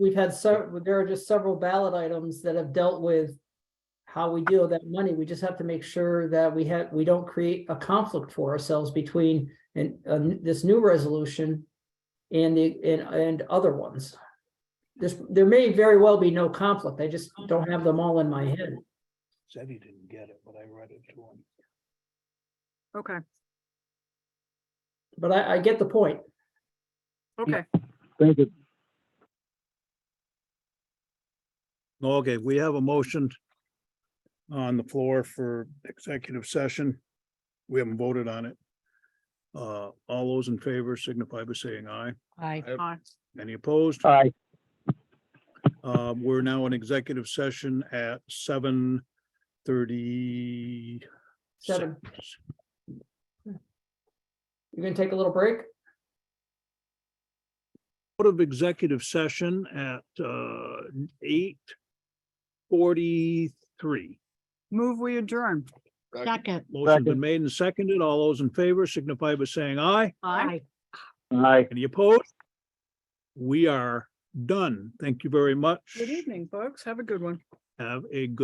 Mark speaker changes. Speaker 1: we've had several, there are just several ballot items that have dealt with how we deal with that money. We just have to make sure that we have, we don't create a conflict for ourselves between and uh, this new resolution and the, and, and other ones. This, there may very well be no conflict. I just don't have them all in my head.
Speaker 2: Said he didn't get it, but I read it to him.
Speaker 3: Okay,
Speaker 1: But I, I get the point.
Speaker 3: okay.
Speaker 4: Thank you.
Speaker 2: Okay, we have a motion on the floor for executive session. We haven't voted on it. Uh, all those in favor signify by saying aye.
Speaker 1: Aye.
Speaker 3: Aye.
Speaker 2: Any opposed?
Speaker 4: Aye.
Speaker 2: Uh, we're now in executive session at seven thirty.
Speaker 1: Seven. You're gonna take a little break?
Speaker 2: Out of executive session at, uh, eight forty-three.
Speaker 3: Move, we adjourn.
Speaker 5: Second.
Speaker 2: Motion's been made and seconded. All those in favor signify by saying aye.
Speaker 3: Aye.
Speaker 4: Aye.
Speaker 2: Any opposed? We are done. Thank you very much.
Speaker 3: Good evening, folks. Have a good one.
Speaker 2: Have a good.